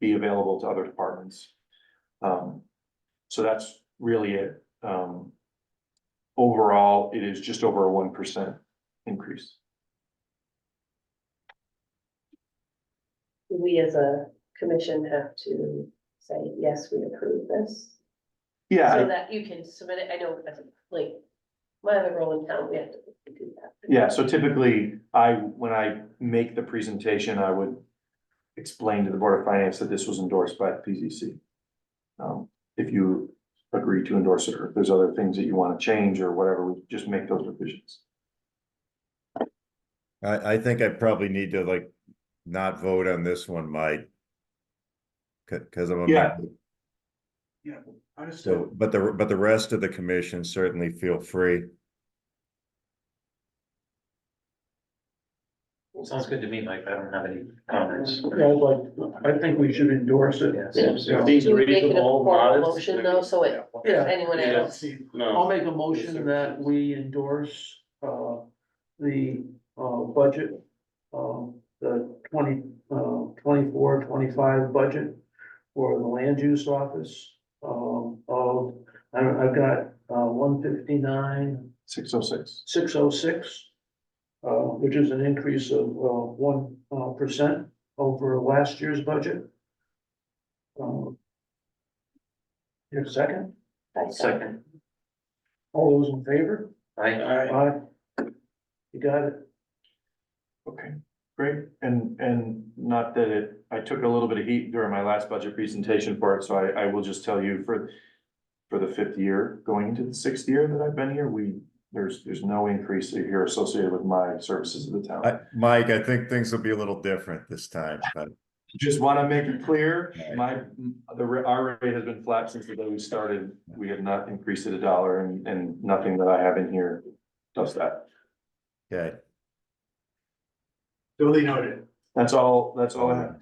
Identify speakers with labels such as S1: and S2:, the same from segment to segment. S1: be available to other departments. Um, so that's really it. Um, overall, it is just over a one percent increase.
S2: we as a commission have to say, yes, we approve this. So
S1: Yeah,
S2: that you can submit it, I know, that's like, my other role in town, we have to do that.
S1: yeah, so typically, I, when I make the presentation, I would explain to the Board of Finance that this was endorsed by the PZC. Um, if you agree to endorse it, or if there's other things that you want to change or whatever, we just make those revisions.
S3: I, I think I probably need to like not vote on this one, Mike. C- Cause I'm a
S1: Yeah.
S3: member,
S1: Yeah,
S3: so, but the, but the rest of the commission certainly feel free.
S4: Sounds good to me, Mike. I don't have any comments.
S5: I think we should endorse it.
S4: Yes.
S5: Yeah.
S6: If these
S2: Do you make it a
S6: reasonable,
S2: formal
S6: modest.
S2: motion, though, so it-
S5: Yeah.
S2: Anyone
S6: Yeah.
S2: else?
S5: I'll
S6: No,
S5: make a motion that we endorse, uh, the, uh, budget, um, the twenty, uh, twenty-four, twenty-five budget for the land use office, um, of, I don't, I've got, uh, one fifty-nine,
S1: Six oh six.
S5: six oh six, uh, which is an increase of, uh, one, uh, percent over last year's budget. Um, Your second,
S2: I second.
S5: all those in favor?
S4: I,
S6: I,
S5: Aye. You got it.
S1: Okay, great, and, and not that it, I took a little bit of heat during my last budget presentation for it, so I, I will just tell you for. For the fifth year, going into the sixth year that I've been here, we, there's, there's no increase here associated with my services of the town.
S3: I, Mike, I think things will be a little different this time, but
S1: Just wanna make it clear, my, the, ra- our rate has been flat since the day we started, we have not increased it a dollar and, and nothing that I have in here does that.
S3: okay.
S7: Duly noted.
S1: That's all, that's all I have.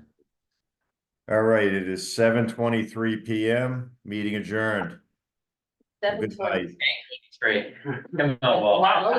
S3: All right, it is seven twenty-three PM, meeting adjourned.
S2: Seven
S3: Good night.
S2: twenty.
S4: great. Come on, Walt.